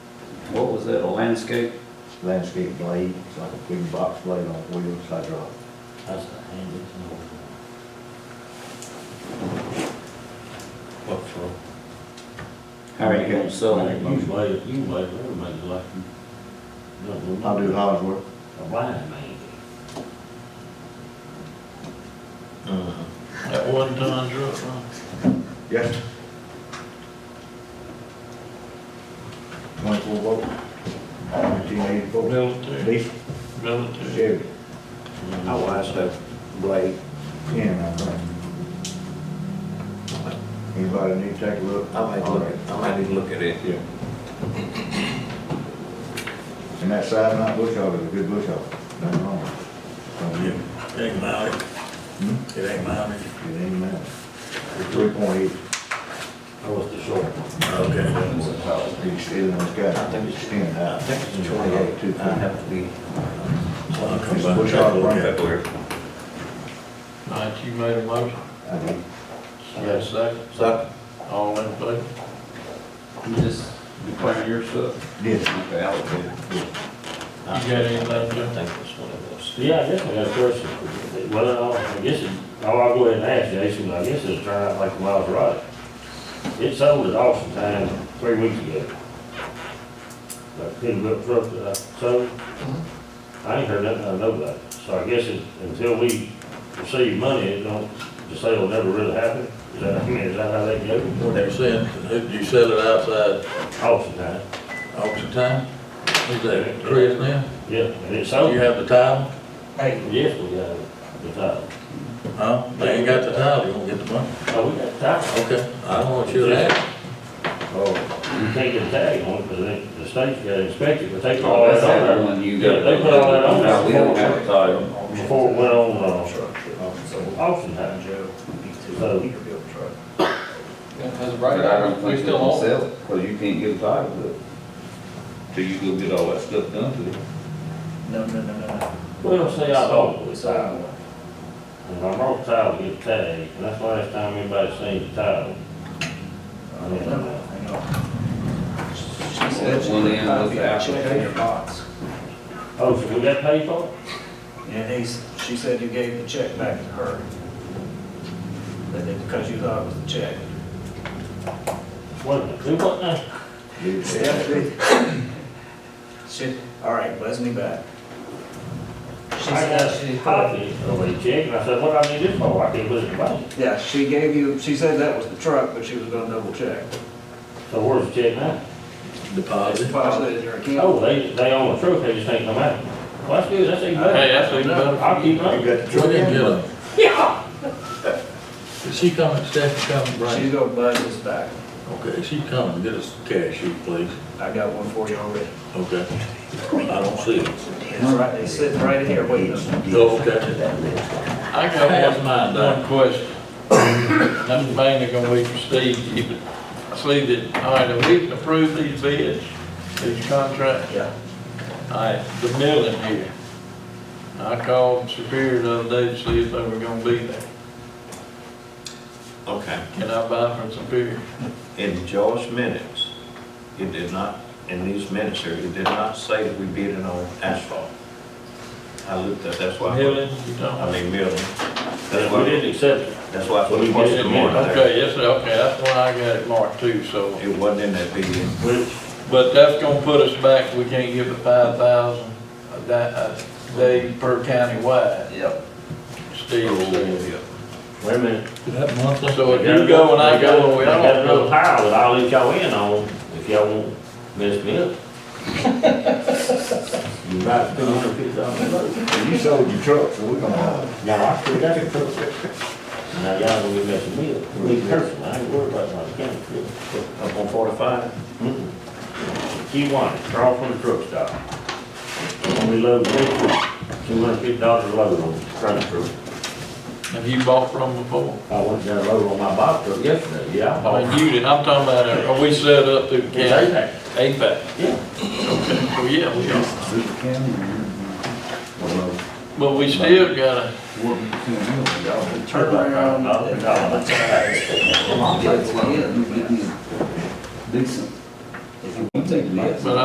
was that a landscape? landscape blade, it's like a big box blade on wheels, hydraulic. That's the handiest one. What for? How are you gonna sell You it? can wait, you can wait, everybody like you. Don't know. I do Hogsworth. A blind man. Uh-huh. That one ton truck, huh? Yes. Twenty-four volt, nineteen eighty-four, Military, diesel, military. Chevy, I Mm-hmm. watched that blade. ten, I think. Anybody need to take a look? I might look, at- I might need to look at it. Yeah. And that side mount bush hog is a good bush hog, nothing wrong with it. It ain't mounted, Hmm? it ain't mounted. It ain't mad. It's three point eight, I was the short one. Okay. it's, it's got, it's ten I out. think it's twenty-eight, Two too. I have to be. So I'll come It's back. bush hog, right? February. Alright, you made a motion, I mean, you got a second, So all in favor? you just declare your stuff. Yes. Okay, I'll do it. You got anything, I John? think it's one of those. Yeah, I guess I got a question. for you. Well, I guess, it- oh, I'll go ahead and ask Jason, but I guess it's turned out like Miles right. It sold at auction time three weeks ago. That pin up truck that I uh, sold, I ain't heard nothing out of nobody. So I guess it, until we receive money, it don't, the sale will never really happen. Is that, I mean, is that how that goes? What you saying, if you sell it outside Auction time, auction time, is that Chris now? yeah, and it Do sold. you have the title? Yes, we got it, the title. Huh? They ain't got the title, you won't get the money. Oh, we got the title. Okay, I don't want you to ask. Oh, You can't get a tag on it, because the state's got to inspect it, but they put Oh, all Oh, that's that the other on one you Yeah, got. they put all that on there. No, We don't have a title. there before it went on, uh, auction house. So, That's But I don't right, think we we still can own it. sell it, because you can't get a title to it. Till you go get all that stuff done to it. No, no, no, no. we don't say I bought it. It's ours. And I brought the title to get tagged, and that's the last time anybody seen the title. I don't uh, know. I know. She That one end was the She apple. gave her box. Oh, so we got paid for it? And he's, she said you gave the check back to her. That it- because you thought it was a check. Wait a minute, do what now? it's- She, all right, wasn't he back? She I said got she a copy of a check, and I said, what do I need this for? I can't put it in the bank. Yeah, she gave you, she said that was the truck, but she was gonna double check. So where's the check now? Deposit. Deposited in her account. Oh, they, they own the truck, they just ain't come out. Well, that's good, that's even better. Hey, that's even better. I'll keep You running. got the We truck didn't get in? a. Is she coming, Steph coming, She's right? gonna buzz us back. Okay, she coming, get us cash, sheet, please. I got one for you already. Okay. I don't see it. It's right, it's sitting right here waiting. Oh, okay. I Pass got mine one, one down. question. I'm mainly gonna be for Steve, you I see that, all right, have we approved these bids, these contracts? Yeah. Alright, the milling here. I called Superior the other day to see if they were gonna be there. Okay, Can I buy from Superior? in Joe's minutes, it did not, in these minutes here, it did not say that we bid it on asphalt. I looked at, that's why, I Milling, you talking? mean, milling. That's We why, didn't accept it. that's why I We put did. it in the morning there. Okay, yes, sir, okay, that's why I got it marked too, so. It wasn't in that bid. Which, But that's gonna put us back, we can't give the five thousand a da- a day per county wide, Yep. Steve said. wait a minute. That monthly. So if you go and I go, we I got all another go. tile that I'll let y'all in on if y'all won't mess me up. About two hundred fifty dollars. You sold your truck, so we're gonna have it. Now, I still got it. Now, y'all gonna be messing me up, me personally, I ain't worried about my county crew. Up on forty-five? Key one, draw from the truck stop. When we load this, two hundred fifty dollars a load on the front truck. Have you bought from before? I went down load on my box truck yesterday, yeah. I I bought- mean, you did, I'm talking about, uh, are we set up through the It's county? APAC, APAC, yeah. well, yeah, we are. Super County, or, But we still gotta, Turn around. I'll be talking about Come on, let's get it. Decent. If you want to take it. but